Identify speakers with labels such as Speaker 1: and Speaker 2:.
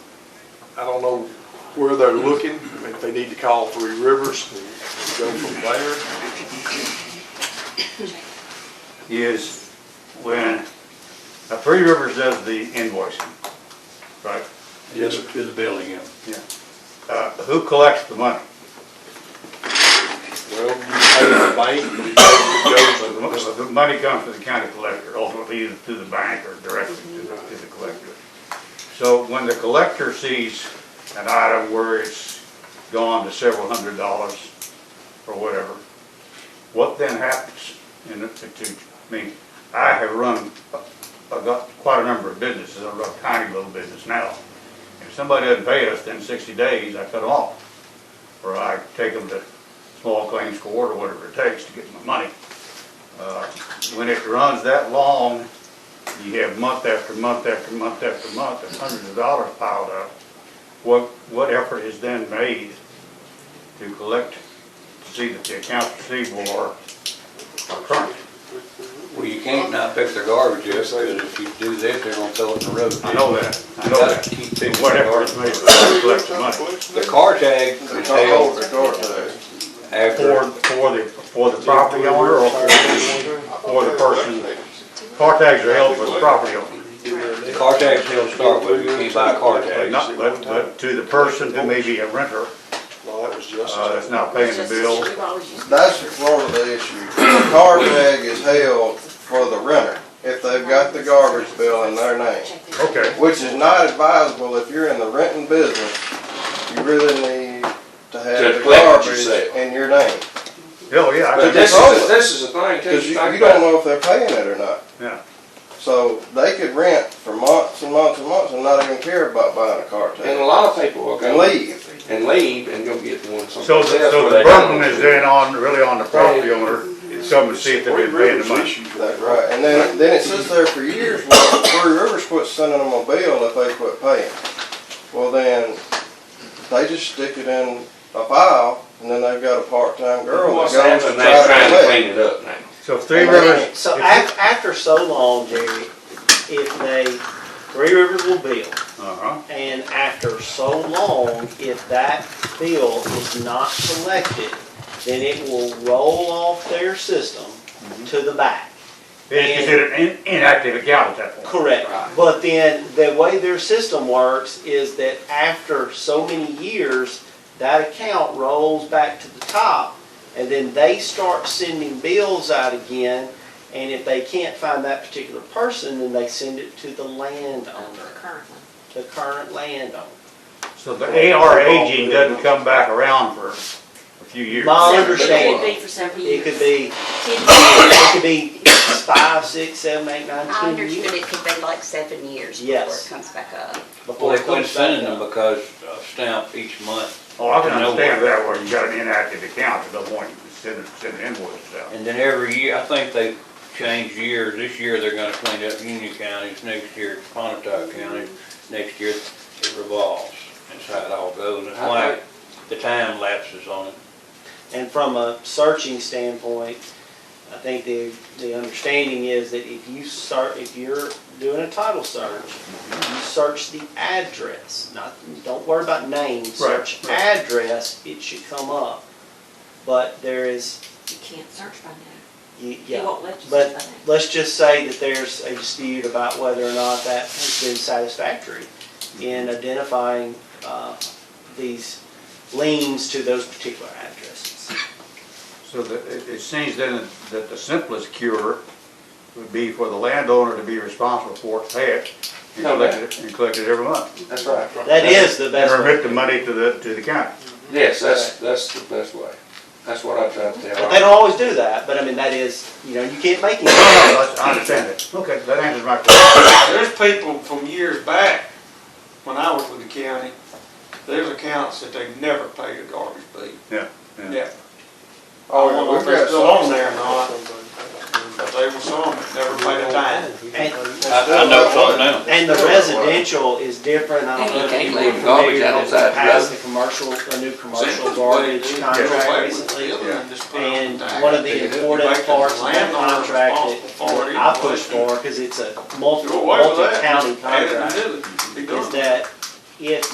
Speaker 1: I don't know where they're looking, if they need to call Three Rivers and go from there.
Speaker 2: is when, now Three Rivers does the invoicing, right?
Speaker 1: Yes, sir.
Speaker 3: To the building, yeah.
Speaker 2: Yeah. Uh, who collects the money?
Speaker 1: Well, you pay the bank, you pay the
Speaker 2: The mo-
Speaker 1: government.
Speaker 2: The money comes to the county collector, ultimately either to the bank or directly to the, to the collector. So when the collector sees an item where it's gone to several hundred dollars or whatever, what then happens in the, to, to- I mean, I have run, uh, I've got quite a number of businesses, I've got a tiny little business now. If somebody doesn't pay us within sixty days, I cut them off, or I take them to small claims court or whatever it takes to get my money. Uh, When it runs that long, you have month after month after month after month, and hundreds of dollars piled up. What, what effort is then made to collect, to see that the accounts receivable are are current?
Speaker 3: Well, you can't not pick their garbage up, because if you do that, they're gonna throw it in the road.
Speaker 2: I know that, I
Speaker 3: You
Speaker 2: know
Speaker 3: gotta
Speaker 2: that.
Speaker 3: keep picking
Speaker 2: What
Speaker 3: their
Speaker 2: effort is
Speaker 3: garbage.
Speaker 2: made to collect the money
Speaker 3: The car tag is held
Speaker 2: for,
Speaker 3: after,
Speaker 2: for the, for the property owner or for, for the person? Car tags are held for the property owner.
Speaker 3: the car tag's held to start with, you can't buy a car
Speaker 2: But
Speaker 3: tag.
Speaker 2: not, but, but to the person who may be a renter,
Speaker 1: No, that was just.
Speaker 2: uh, that's not paying the bill.
Speaker 4: That's the Florida issue. The Car tag is held for the renter if they've got the garbage bill in their name,
Speaker 2: Okay,
Speaker 4: which is not advisable if you're in the renting business. You really need to have
Speaker 5: To
Speaker 4: the
Speaker 5: collect what you
Speaker 4: garbage
Speaker 5: sell.
Speaker 4: in your name.
Speaker 2: hell, yeah. I
Speaker 5: But
Speaker 2: can-
Speaker 5: this is, this is the thing too,
Speaker 4: Because
Speaker 5: you
Speaker 4: you
Speaker 5: talk
Speaker 4: you
Speaker 5: about
Speaker 4: don't know if they're paying it or not.
Speaker 2: Yeah,
Speaker 4: So they could rent for months and months and months and not even care about buying a car
Speaker 5: And
Speaker 4: tag
Speaker 5: a lot of people will
Speaker 4: and
Speaker 5: go
Speaker 4: leave.
Speaker 5: and leave and go get one someplace
Speaker 2: so,
Speaker 5: else.
Speaker 2: the- so
Speaker 5: where
Speaker 2: the
Speaker 5: they don't
Speaker 2: burden
Speaker 5: know.
Speaker 2: is then on, really on the property owner, to come and see if they've been paying the money.
Speaker 4: That's right. And then, then it sits there for years while Three Rivers quit sending them a bill if they quit paying. Well, then, they just stick it in a file and then they've got a part-time girl that
Speaker 5: What's
Speaker 4: goes and
Speaker 5: happening, they're
Speaker 4: tries
Speaker 5: trying
Speaker 4: to
Speaker 5: to
Speaker 4: collect.
Speaker 5: clean it up now.
Speaker 2: So if Three Rivers,
Speaker 6: So af- after so long, Jerry, if they, Three Rivers will bill,
Speaker 2: uh-huh,
Speaker 6: and after so long, if that bill is not collected, then it will roll off their system to the back.
Speaker 2: it's considered an inactive account at that point.
Speaker 6: Correct. But then, the way their system works is that after so many years, that account rolls back to the top, and then they start sending bills out again, and if they can't find that particular person, then they send it to the landowner, the current landowner.
Speaker 2: So the AR aging doesn't come back around for a few years.
Speaker 6: My
Speaker 5: understand.
Speaker 7: It could
Speaker 6: understanding,
Speaker 7: be for several
Speaker 6: it
Speaker 7: years.
Speaker 6: could be,
Speaker 7: Ten
Speaker 6: it
Speaker 7: years.
Speaker 6: could be five, six, seven, eight, nine,
Speaker 7: I
Speaker 6: ten
Speaker 7: understand
Speaker 6: years
Speaker 7: it could be like seven years before
Speaker 6: Yes.
Speaker 7: it comes back up.
Speaker 3: Well,
Speaker 6: before
Speaker 3: they
Speaker 6: it
Speaker 3: quit
Speaker 6: comes back
Speaker 3: sending them
Speaker 6: up.
Speaker 3: because of stamp each month,
Speaker 2: Oh, I can understand that, where you got an inactive account, at no point you can send, send invoices out.
Speaker 3: and then every year, I think they changed years. This year, they're gonna clean up Union counties, next year it's Pontotoc County, next year it revolves. That's how it all goes, it's why the time lapses on it.
Speaker 6: And from a searching standpoint, I think the, the understanding is that if you start, if you're doing a title search, you search the address, not, don't worry about name, search
Speaker 2: Right, right.
Speaker 6: address, it should come up. But there is,
Speaker 7: You can't search by name.
Speaker 6: you-
Speaker 7: He
Speaker 6: yeah,
Speaker 7: won't let you search by
Speaker 6: but
Speaker 7: name.
Speaker 6: let's just say that there's a dispute about whether or not that has been satisfactory in
Speaker 2: Mm-hmm.
Speaker 6: identifying, uh, these liens to those particular addresses.
Speaker 2: So the- it it seems then that the simplest cure would be for the landowner to be responsible for it, pay it, and
Speaker 5: No
Speaker 2: collect it, and collect it every month.
Speaker 5: That's right.
Speaker 6: That is the
Speaker 2: And
Speaker 6: best
Speaker 2: remit the
Speaker 6: way.
Speaker 2: money to the, to the county.
Speaker 5: Yes, that's, that's the best way. That's what I try to
Speaker 6: But They
Speaker 5: tell.
Speaker 6: don't always do that, but I mean, that is, you know, you can't make
Speaker 2: No, no,
Speaker 6: it.
Speaker 2: that's- I understand it. Okay, that answers my question.
Speaker 8: There's people from years back, when I was with the county, there's accounts that they never paid a garbage bill.
Speaker 2: Yeah, yeah.
Speaker 8: Never.
Speaker 4: Oh,
Speaker 8: I don't know
Speaker 4: we've
Speaker 8: if
Speaker 4: got
Speaker 8: they're still on there or
Speaker 4: some-
Speaker 8: not, but they were some that never paid a dime.
Speaker 6: And-
Speaker 3: I, I know something now.
Speaker 6: And the residential is different, I don't know if
Speaker 5: And you can't
Speaker 6: you were
Speaker 5: leave garbage
Speaker 6: familiar
Speaker 5: out
Speaker 6: with
Speaker 5: outside
Speaker 6: the
Speaker 5: the
Speaker 6: past,
Speaker 5: road.
Speaker 6: the commercial, the new commercial
Speaker 8: Simple.
Speaker 6: garbage contract
Speaker 8: They
Speaker 6: recently.
Speaker 8: built it and just put it on
Speaker 6: And
Speaker 8: the tax.
Speaker 6: one of
Speaker 8: They
Speaker 6: the
Speaker 8: didn't
Speaker 6: important
Speaker 8: make the
Speaker 6: parts of that
Speaker 8: landowner
Speaker 6: contract
Speaker 8: responsible for
Speaker 6: that
Speaker 8: it
Speaker 6: I push
Speaker 8: anyway.
Speaker 6: for, because it's a
Speaker 8: Do
Speaker 6: multi,
Speaker 8: away with that.
Speaker 6: multi-county
Speaker 8: Add it
Speaker 6: contract,
Speaker 8: to it. Be done.
Speaker 6: is that if